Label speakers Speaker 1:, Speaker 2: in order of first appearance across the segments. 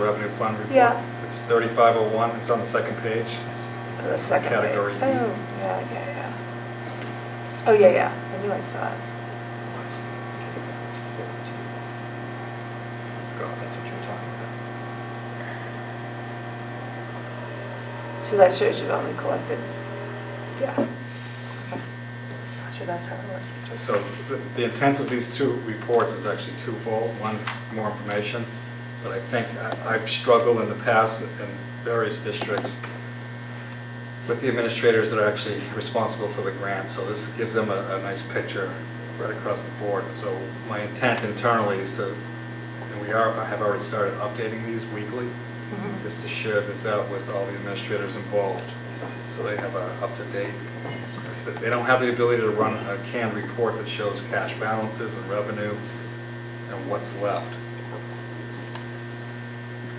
Speaker 1: Revenue Fund Report.
Speaker 2: Yeah.
Speaker 1: It's 3501, it's on the second page.
Speaker 2: The second page.
Speaker 1: Category E.
Speaker 2: Oh, yeah, yeah, yeah. Oh, yeah, yeah, I knew I saw it.
Speaker 1: God, that's what you're talking about.
Speaker 2: So that shows you've only collected, yeah. Okay. So that's how it works.
Speaker 1: So the- the intent of these two reports is actually twofold. One, more information, but I think I- I've struggled in the past in various districts with the administrators that are actually responsible for the grant, so this gives them a, a nice picture right across the board. So my intent internally is to, and we are, I have already started updating these weekly,
Speaker 2: Mhm.
Speaker 1: just to share this out with all the administrators involved, so they have a up-to-date. They don't have the ability to run a canned report that shows cash balances and revenue and what's left.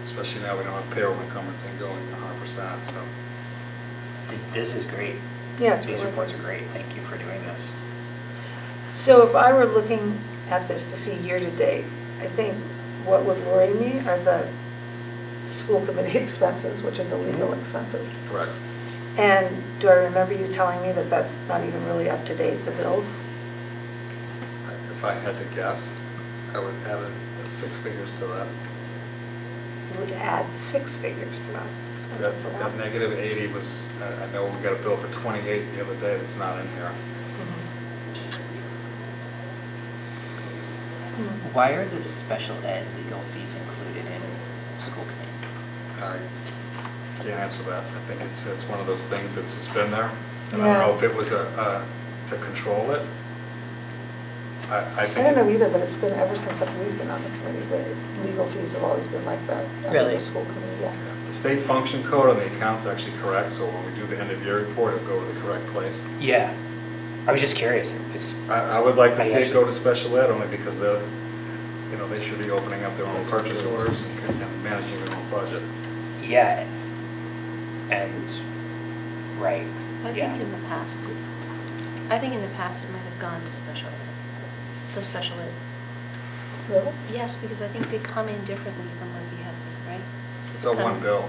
Speaker 1: Especially now we don't have payroll encumbrance and going a hundred percent, so.
Speaker 3: Th- This is great.
Speaker 2: Yeah, it's
Speaker 3: These
Speaker 2: really-
Speaker 3: reports are great. Thank you for doing this.
Speaker 2: So if I were looking at this to see year-to-date, I think what would worry me are the school committee expenses, which are the legal expenses.
Speaker 1: Correct.
Speaker 2: And do I remember you telling me that that's not even really up to date, the bills?
Speaker 1: If I had to guess, I would add a- six figures to that.
Speaker 2: You would add six figures to that.
Speaker 1: That's, that negative 80 was, I I know we got a bill for 28 the other day that's not in here.
Speaker 2: Mhm.
Speaker 3: Why are the special ed legal fees included in school committee?
Speaker 1: I can't answer that. I think it's, it's one of those things that's just been there. And I don't know
Speaker 2: Yeah.
Speaker 1: if it was a, a- to control it. I, I
Speaker 2: I
Speaker 1: think.
Speaker 2: don't know
Speaker 1: it-
Speaker 2: either, but it's been ever since I've- we've been on the committee, the legal fees have always been like that. under
Speaker 3: Really?
Speaker 2: The school committee,
Speaker 1: Yeah,
Speaker 2: yeah.
Speaker 1: The state function code on the account's actually correct, so when we do the end of year report, it'll go to the correct place.
Speaker 3: Yeah. I was just curious. It was-
Speaker 1: I, I would like to
Speaker 3: I
Speaker 1: see it go
Speaker 3: actually-
Speaker 1: to special ed only because they're, you know, they should be opening up their own purchase orders and and managing their own budget.
Speaker 3: Yeah. And, right,
Speaker 4: I
Speaker 3: yeah.
Speaker 4: think in the past, I think in the past it might have gone to special ed, the special ed.
Speaker 2: Really?
Speaker 4: Yes, because I think they come in differently from what we have, right?
Speaker 1: It's a one bill,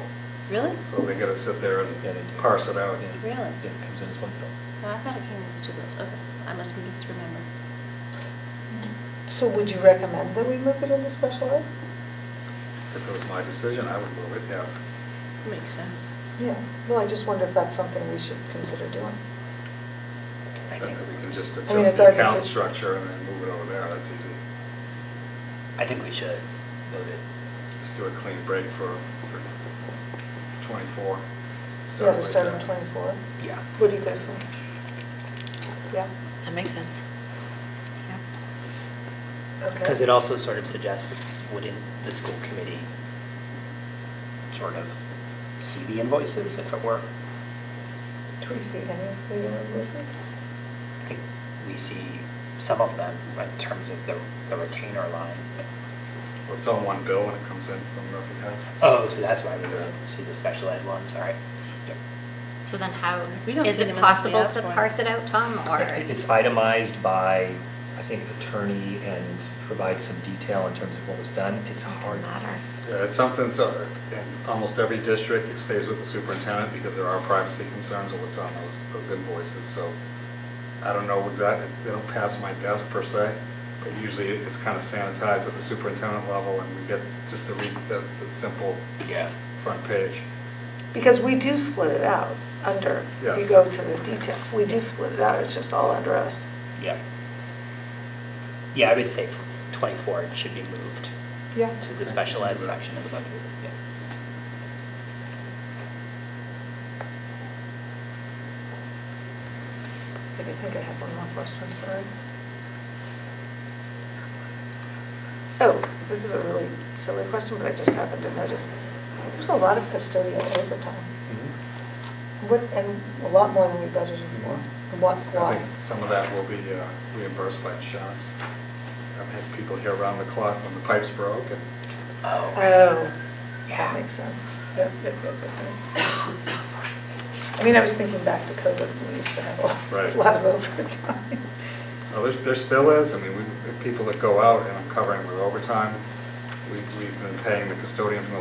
Speaker 4: Really?
Speaker 1: so they gotta sit there
Speaker 5: Yeah, they do.
Speaker 1: and parse it out.
Speaker 5: Yeah.
Speaker 4: Really?
Speaker 5: Yeah, it comes in as one bill.
Speaker 4: No, I thought it came in as two bills. Okay, I must have misremembered.
Speaker 2: So would you recommend that we move it into special ed?
Speaker 1: If it was my decision, I would move it, yes.
Speaker 4: Makes sense.
Speaker 2: Yeah, well, I just wonder if that's something we should consider doing.
Speaker 3: I
Speaker 1: That
Speaker 3: think,
Speaker 1: We can just
Speaker 2: I mean,
Speaker 1: adjust
Speaker 2: it's our
Speaker 1: the account
Speaker 2: decision.
Speaker 1: structure and then move it over there, that's easy.
Speaker 3: I think we should vote it.
Speaker 1: Just do a clean break for for 24.
Speaker 2: Yeah, to
Speaker 1: right
Speaker 2: start in
Speaker 1: there.
Speaker 2: 24.
Speaker 3: Yeah.
Speaker 2: What do you guys think? Yeah,
Speaker 6: That makes sense.
Speaker 2: okay.
Speaker 3: Because it also sort of suggests that this wouldn't the school committee sort of see the invoices if it were?
Speaker 2: Do we see any of the invoices?
Speaker 3: I think we see some of them in terms of the the retainer line.
Speaker 1: Well, It's on one bill when it comes in from Murphy House.
Speaker 3: Oh, so that's why we don't see the special ed ones, all right. Yep.
Speaker 6: So then how,
Speaker 4: We don't
Speaker 6: is
Speaker 4: see them
Speaker 6: it
Speaker 4: unless we
Speaker 6: possible
Speaker 4: ask
Speaker 6: to
Speaker 4: for it.
Speaker 6: parse it out, Tom, or?
Speaker 5: It's itemized by, I think, attorney and provides some detail in terms of what was done. It's hard.
Speaker 6: Doesn't matter.
Speaker 1: Yeah, it's something, that's, uh, in almost every district, it stays with the superintendent because there are privacy concerns of what's on those, those invoices, so I don't know exactly, they don't pass my desk per se, but usually it's kind of sanitized at the superintendent level and we get just the, re- the the simple
Speaker 3: Yeah.
Speaker 1: front page.
Speaker 2: Because we do split it out under, if
Speaker 1: Yes.
Speaker 2: you go to the detail, we do split it out, it's just all under us.
Speaker 3: Yep. Yeah, I would say from 24, it should be moved
Speaker 2: Yeah.
Speaker 3: to the special ed section of the budget. Yeah.
Speaker 2: I think I have one more question, sorry. Oh, this is a really silly question, but I just happened to notice, there's a lot of custodial overtime. What, and a lot more than we budgeted for. What,
Speaker 1: I
Speaker 2: why?
Speaker 1: think some of that will be uh, reimbursed by insurance. I've had people here around the clock when the pipes broke and
Speaker 3: Oh.
Speaker 2: Oh, that
Speaker 3: Yeah.
Speaker 2: makes sense. Yep, yep, yep, yep, yep. I mean, I was thinking back to COVID, when we used to have
Speaker 1: Right.
Speaker 2: a lot of overtime.
Speaker 1: Well, there, there still is, I mean, we, people that go out and I'm covering with overtime, we, we've been paying the custodian from the